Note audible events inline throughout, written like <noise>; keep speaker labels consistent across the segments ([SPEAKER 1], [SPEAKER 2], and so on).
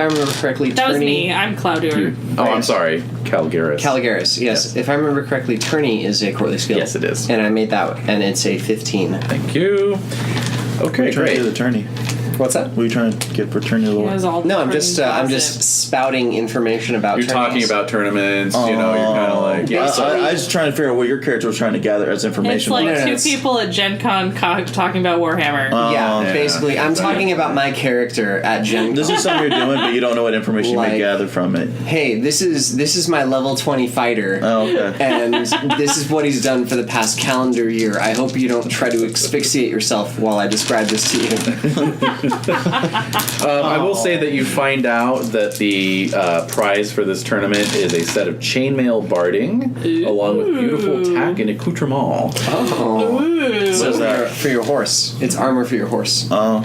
[SPEAKER 1] I remember correctly,
[SPEAKER 2] That was
[SPEAKER 1] Turney-
[SPEAKER 2] me. I'm Clouder.
[SPEAKER 3] Oh, I'm
[SPEAKER 1] Right.
[SPEAKER 3] sorry, Calgaris.
[SPEAKER 1] Caligaris, yes. If I remember correctly, Turney is a courtly skill.
[SPEAKER 3] Yes, it is.
[SPEAKER 1] And I made that, and it's a 15.
[SPEAKER 3] Thank you. Okay,
[SPEAKER 4] We're trying to do
[SPEAKER 3] great.
[SPEAKER 4] the tourney.
[SPEAKER 1] What's that?
[SPEAKER 4] What are you trying to get for tourney
[SPEAKER 2] It
[SPEAKER 4] lore?
[SPEAKER 2] was all
[SPEAKER 1] No, I'm just uh, I'm
[SPEAKER 2] Clouded.
[SPEAKER 1] just spouting information about.
[SPEAKER 3] You're talking
[SPEAKER 1] tourneys.
[SPEAKER 3] about tournaments. you know, you're kind
[SPEAKER 4] Oh.
[SPEAKER 3] of like yeah.
[SPEAKER 4] I, I, I was just trying to figure out what your character was trying to gather
[SPEAKER 2] It's
[SPEAKER 4] as information.
[SPEAKER 2] like
[SPEAKER 1] No, no,
[SPEAKER 2] two
[SPEAKER 1] it's-
[SPEAKER 2] people at Gen Con co- talking about
[SPEAKER 1] Yeah,
[SPEAKER 2] Warhammer.
[SPEAKER 4] Oh,
[SPEAKER 3] yeah.
[SPEAKER 1] basically, I'm talking about my character at Gen.
[SPEAKER 4] this
[SPEAKER 1] Con.
[SPEAKER 4] is something you're doing, but you don't know what information you
[SPEAKER 1] Like-
[SPEAKER 4] may gather from it.
[SPEAKER 1] hey, this is this is my level 20 fighter.
[SPEAKER 4] Oh, okay.
[SPEAKER 1] And this is what he's done for the past calendar year. I hope you don't try to asphyxiate yourself while I describe this to you.
[SPEAKER 3] Um, I will say that you find out that the uh, prize for this tournament is a set of chainmail barding, along with beautiful tack and accoutrement.
[SPEAKER 1] Oh,
[SPEAKER 2] Ooh.
[SPEAKER 1] so for,
[SPEAKER 4] that?
[SPEAKER 1] your, for your horse, it's armor for your horse.
[SPEAKER 4] Oh,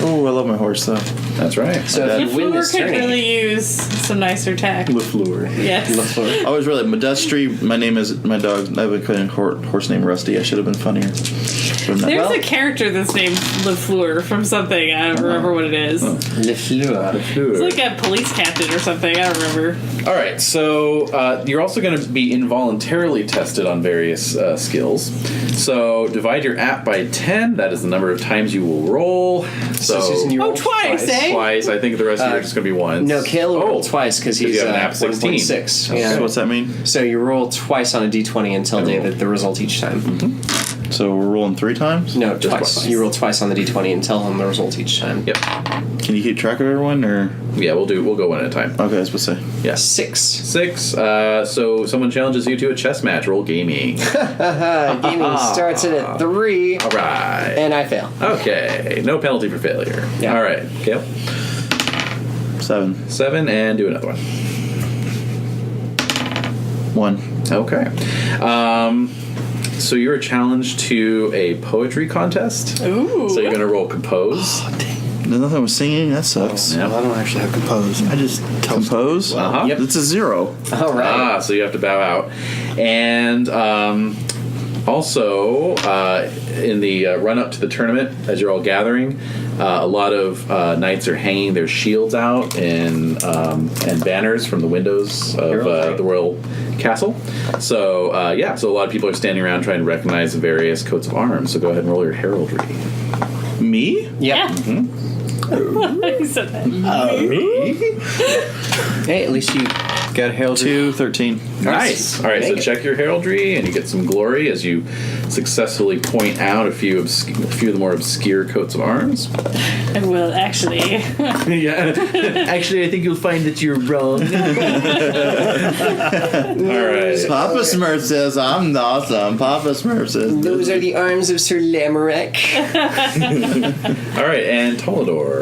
[SPEAKER 4] oh, I love my horse though.
[SPEAKER 3] That's right.
[SPEAKER 1] So if you win
[SPEAKER 2] Lefleur
[SPEAKER 1] this
[SPEAKER 2] could
[SPEAKER 1] tourney,
[SPEAKER 2] really use some nicer tech.
[SPEAKER 4] Lefleur.
[SPEAKER 2] Yes.
[SPEAKER 4] I was really Modestry. My name is my dog. I have a cousin hor- horse named Rusty. I should have been funnier. But I'm not.
[SPEAKER 2] There's
[SPEAKER 1] Well-
[SPEAKER 2] a character that's named Lefleur from something. I don't
[SPEAKER 1] Uh-huh.
[SPEAKER 2] remember what it is.
[SPEAKER 3] Oh,
[SPEAKER 1] <laughs>
[SPEAKER 2] It's
[SPEAKER 1] Lefleur.
[SPEAKER 2] like a police captain or something. I don't remember.
[SPEAKER 3] All right, so uh, you're also going to be involuntarily tested on various uh, skills. So divide your app by 10. That is the number of times you will roll. So,
[SPEAKER 1] Susan, you
[SPEAKER 2] Oh,
[SPEAKER 1] rolled
[SPEAKER 2] twice, eh?
[SPEAKER 3] twice. I think the rest of you are just going to be once.
[SPEAKER 1] Uh, No, Kale
[SPEAKER 3] Oh,
[SPEAKER 1] rolled twice because
[SPEAKER 3] you
[SPEAKER 1] he's
[SPEAKER 3] have
[SPEAKER 1] uh,
[SPEAKER 3] an app Oh. 16.
[SPEAKER 1] 1.6.
[SPEAKER 4] So
[SPEAKER 1] Yeah.
[SPEAKER 4] what's that mean?
[SPEAKER 1] So you roll twice on a d20 and tell
[SPEAKER 3] I roll.
[SPEAKER 1] David the result each time.
[SPEAKER 4] So we're rolling three times.
[SPEAKER 1] No,
[SPEAKER 3] Just
[SPEAKER 1] Mm-hmm. twice.
[SPEAKER 3] twice.
[SPEAKER 1] You roll twice on the d20 and tell him the result each time.
[SPEAKER 3] Yep.
[SPEAKER 4] Can you keep track of everyone or?
[SPEAKER 3] Yeah, we'll do. We'll go one at a time.
[SPEAKER 4] Okay, I was supposed to say.
[SPEAKER 3] Yes.
[SPEAKER 1] Six.
[SPEAKER 3] Six. Uh, so someone challenges you to a chess match.
[SPEAKER 1] <laughs>
[SPEAKER 3] Roll gaming.
[SPEAKER 1] Uh, gaming starts it at three,
[SPEAKER 3] All right.
[SPEAKER 1] and I fail.
[SPEAKER 3] Okay. No penalty for failure.
[SPEAKER 1] Yeah.
[SPEAKER 3] All right. Kale.
[SPEAKER 4] seven,
[SPEAKER 3] Seven and do another one.
[SPEAKER 4] one.
[SPEAKER 3] Okay. Um, so you're challenged to a poetry contest.
[SPEAKER 2] Ooh.
[SPEAKER 3] So you're going to
[SPEAKER 1] <gasps>
[SPEAKER 3] roll compose.
[SPEAKER 4] There's nothing with singing. That sucks.
[SPEAKER 3] Yep.
[SPEAKER 5] I don't actually have compose. I just tell
[SPEAKER 4] Compose.
[SPEAKER 3] Uh-huh. Yep.
[SPEAKER 4] It's a zero.
[SPEAKER 1] All right.
[SPEAKER 3] Ah, so you have to bow out. And um, also, uh, in the uh, run up to the tournament, as you're all gathering, uh, a lot of uh, knights are hanging their shields out and um, and banners from the windows of uh, the royal castle. So uh, yeah, so a lot of people are standing around trying to recognize the various coats of arms. So go ahead and roll your heraldry.
[SPEAKER 4] Me?
[SPEAKER 1] yeah.
[SPEAKER 2] Yeah.
[SPEAKER 3] Mm-hmm.
[SPEAKER 2] <laughs> he said that.
[SPEAKER 1] Hey, at least you got hailed.
[SPEAKER 4] Two, thirteen.
[SPEAKER 3] Nice. All right, so
[SPEAKER 1] Make it.
[SPEAKER 3] check your heraldry, and you get some glory as you successfully point out a few obs- a few of the more obscure coats of arms.
[SPEAKER 2] I will actually.
[SPEAKER 3] yeah. <laughs> Actually, I think you'll find that you're <laughs> wrong. All right.
[SPEAKER 4] Papa Smurf says I'm awesome. Papa Smurf says
[SPEAKER 1] Those are the arms of Sir Lamorak.
[SPEAKER 3] All right, and Tolador.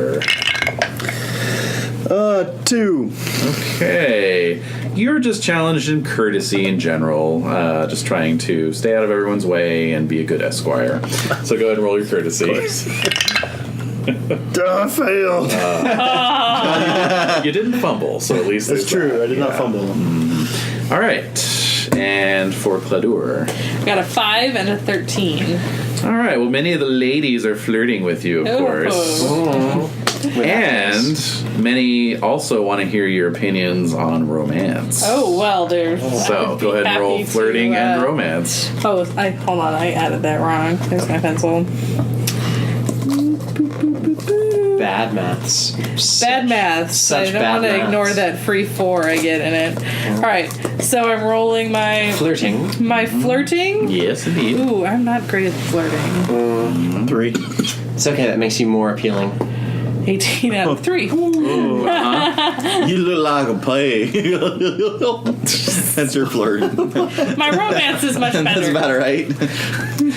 [SPEAKER 4] uh two.
[SPEAKER 3] Okay. You're just challenged in courtesy in general, uh, just trying to stay out of everyone's way and be a good esquire. So go ahead and roll your courtesy.
[SPEAKER 4] Duh, I failed.
[SPEAKER 3] you didn't fumble, so at least
[SPEAKER 5] That's
[SPEAKER 3] there's
[SPEAKER 5] true. I did not
[SPEAKER 3] Yeah.
[SPEAKER 5] fumble them.
[SPEAKER 3] All right, and for Cladur.
[SPEAKER 2] Got a five and a thirteen.
[SPEAKER 3] All right. Well, many of the ladies are flirting with you, of
[SPEAKER 2] Oh.
[SPEAKER 3] course, and many also want to hear your opinions on romance.
[SPEAKER 2] Oh well, there's. I
[SPEAKER 3] So
[SPEAKER 2] would
[SPEAKER 3] go
[SPEAKER 2] be
[SPEAKER 3] ahead and roll
[SPEAKER 2] happy to,
[SPEAKER 3] flirting and
[SPEAKER 2] uh,
[SPEAKER 3] romance.
[SPEAKER 2] Oh, I hold on. I added that wrong. There's my pencil.
[SPEAKER 1] Bad maths.
[SPEAKER 2] Bad maths.
[SPEAKER 1] such
[SPEAKER 2] I don't
[SPEAKER 1] bad
[SPEAKER 2] want to
[SPEAKER 1] maths.
[SPEAKER 2] ignore that free four I get in it. All right, so I'm rolling my
[SPEAKER 1] Flirting.
[SPEAKER 2] my flirting.
[SPEAKER 3] Yes, indeed.
[SPEAKER 2] Ooh, I'm not great at flirting.
[SPEAKER 4] Three.
[SPEAKER 1] It's okay. That makes you more appealing.
[SPEAKER 2] 18 out of three.
[SPEAKER 4] <laughs>
[SPEAKER 3] uh-huh.
[SPEAKER 2] <laughs>
[SPEAKER 4] You look like a <laughs> pig. That's your flirt.
[SPEAKER 2] My romance is much
[SPEAKER 4] That's
[SPEAKER 2] better.
[SPEAKER 4] about right.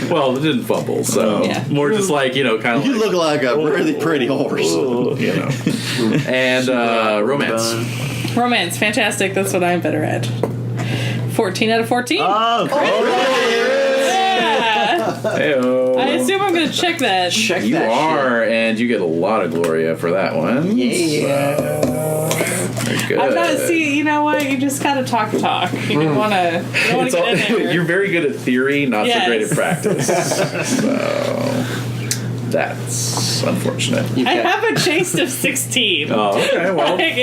[SPEAKER 3] Well, it didn't fumble, so
[SPEAKER 2] Yeah.
[SPEAKER 3] more just like you know, kind of
[SPEAKER 4] You
[SPEAKER 3] like,
[SPEAKER 4] look like a really pretty horse.
[SPEAKER 3] you know, and uh, romance.
[SPEAKER 2] Romance, fantastic. That's what I'm better at. 14 out of 14.
[SPEAKER 4] Oh,
[SPEAKER 2] Yeah.
[SPEAKER 3] Heyo.
[SPEAKER 2] I assume I'm gonna check that.
[SPEAKER 1] Check
[SPEAKER 3] You
[SPEAKER 1] that
[SPEAKER 3] are, and you get a lot of Gloria for that one.
[SPEAKER 1] shit. Yeah.
[SPEAKER 3] Very good.
[SPEAKER 2] I'm not. See, you know what? You just gotta talk the talk. You don't wanna. You don't wanna
[SPEAKER 3] It's all,
[SPEAKER 2] <laughs>
[SPEAKER 3] <laughs>
[SPEAKER 2] get in there. <laughs>
[SPEAKER 3] you're very good at theory, not so great at
[SPEAKER 2] Yes.
[SPEAKER 3] practice.
[SPEAKER 2] That's unfortunate.
[SPEAKER 6] You've
[SPEAKER 3] I
[SPEAKER 6] got-
[SPEAKER 3] have a chase of 16.
[SPEAKER 2] <laughs> Oh, okay. Well,
[SPEAKER 3] Like,